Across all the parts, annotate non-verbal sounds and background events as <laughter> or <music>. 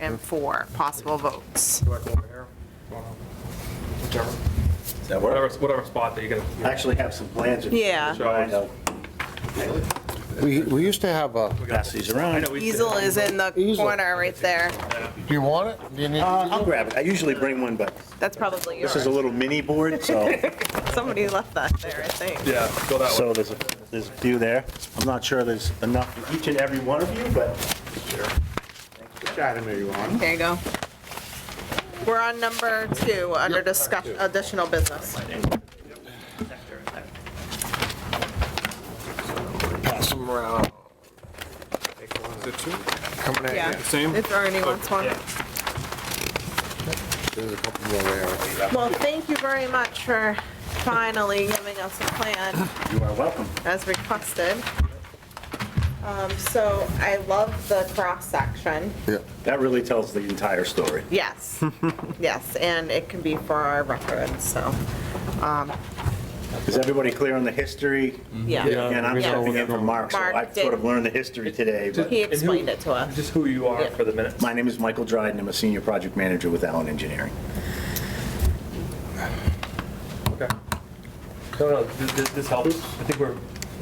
item four, possible votes. Do I go over here? Go on over. Whichever. Does that Whatever, work? whatever spot that you're I gonna, actually have some plans. in Yeah. mind of- We, we used to have a, Pass these I around. know we. Easel is in the Easel. corner right there. do you want it? Do you need? Uh, I'll grab it. I usually bring one, but That's probably this is yours. a little mini <laughs> board, so, Somebody left that there, I think. Yeah, go that way. so there's a, there's a few there. I'm not sure there's enough for each and every one of you, but. Item you on. There you go. We're on number two, under discuss, additional business. Pass them around. Is it two? Coming at Yeah. you. Same? If Ernie wants one. Yeah. There's a couple more there. Well, thank you very much for finally giving us a plan You are welcome. as requested. Um, So I love the cross-section. That really tells the entire story. Yes, <laughs> yes, and it can be for our records, so, Is everybody clear on the history? yeah. And I'm Yeah. stepping in for Mark, so I Mark did. sort of learned the history today. but- He explained it to us. Just who you are Yeah. for the minutes. My name is Michael Dryden. I'm a senior project manager with Allen Engineering. Okay. No, no, th- th- this helps. I think we're,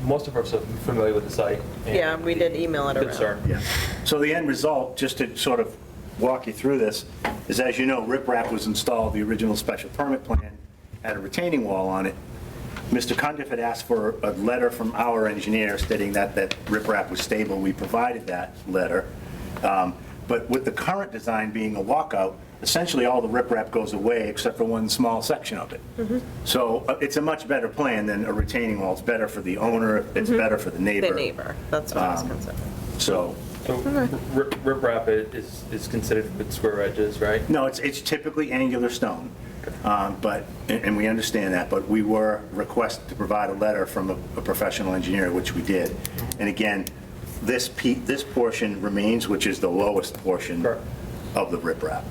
most of us are familiar with the site. and Yeah, we did email it the around. Concern. Yeah. So the end result, just to sort of walk you through this, is as you know, riprap was installed, the original special permit plan had a retaining wall on it. Mr. Cundiff had asked for a letter from our engineer stating that, that riprap was stable. We provided that letter. Um, But with the current design being a walkout, essentially all the riprap goes away except for one small section of it. Mm-hmm. So uh, it's a much better plan than a retaining wall. It's better for the owner, it's better for the neighbor. Mm-hmm. The neighbor, that's what I was concerned. So So rip- riprap i- is, is considered with square edges, right? No, it's, it's typically angular stone, Um, but, and and we understand that, but we were requested to provide a letter from a a professional engineer, which we did. And again, this pe, this portion remains, which is the lowest portion Correct. of the riprap.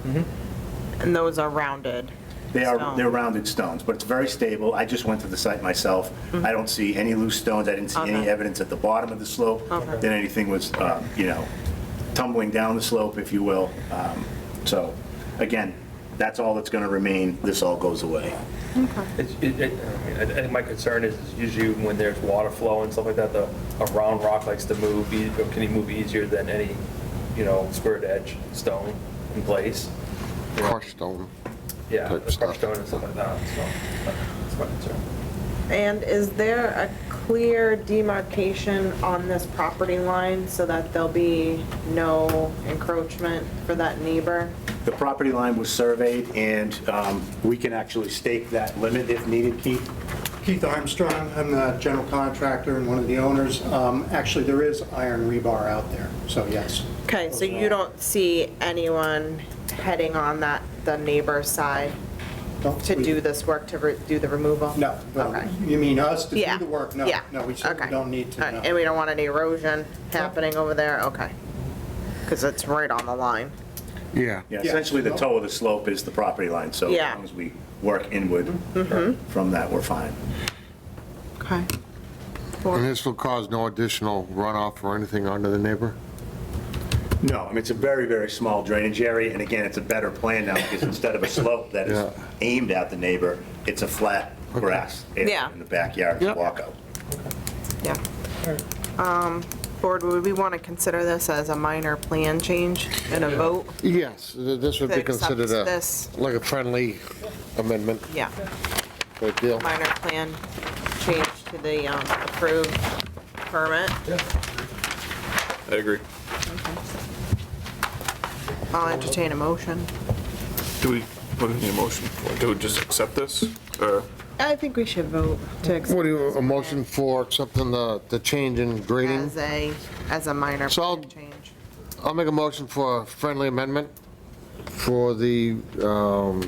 And those are rounded. They are, Stone. they're rounded stones, but it's very stable. I just went to the site myself. I don't see any loose stones. I didn't see any Mm-hmm. Okay. evidence at the bottom of the slope Okay. that anything was, um, you know, tumbling down the slope, if you will. Um, So, again, that's all that's going to remain. This all goes away. It's, it, it, I mean, I think my concern is is usually when there's water flow and stuff like that, the, a round rock likes to move, e- or can he move easier than any, you know, squared edge stone in place? You know, Crushed stone. Yeah, type the stuff. crushed stone and stuff like that, so that's my concern. And is there a clear demarcation on this property line so that there'll be no encroachment for that neighbor? The property line was surveyed, and um, we can actually stake that limit if needed, Keith. Keith Armstrong, I'm the general contractor and one of the owners. Um, Actually, there is iron rebar out there, so yes. Okay, so you don't see anyone heading on that, the neighbor's side Don't to we- do this work, to re- do the removal? No, no. Okay. You mean us to Yeah. do the work? No, yeah, no, we certainly okay. don't need to, All right, no. And we don't want any erosion happening over there, okay. Because it's right on the line. Yeah. Yeah, Yeah. essentially, the toe of the slope is the property line, so as Yeah. Mm-hmm. long as we work inward from that, we're fine. Okay. And this will cause no additional runoff or anything onto the neighbor? No, I mean, it's a very, very small drainage area, and again, it's a better plan now, because instead of a slope that Yeah. is aimed at the neighbor, it's a flat grass area Yeah. in the backyard, it's a Yep. walkout. Yeah. Um, Board, would we want to consider this as a minor plan change and a vote? Yes, th- this would be Accepts considered a, this. like a friendly amendment, Yeah, type deal. minor plan change to the um, approved permit. I agree. I'll entertain a motion. Do we, what is the motion for? Do we just accept this? Or, I think we should vote to What accept do you, a motion for accepting the, the change in grading? as a, as a minor So I'll- plan change. I'll make a motion for a friendly amendment for the, um,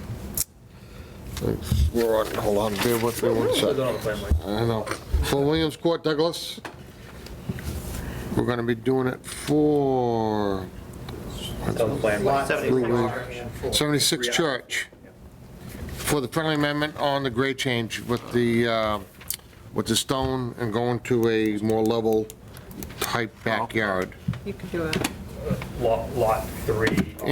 thanks, we're on, hold on, bear with me one Put it on second. the plan, Mike. I know. For Williams Court Douglas, we're gonna be doing it for It's on the plan, Mike. Lot- 76 Church. For the friendly amendment on the grade change with the, uh, with the stone and going to a more level type backyard. You can do it. lot, lot three.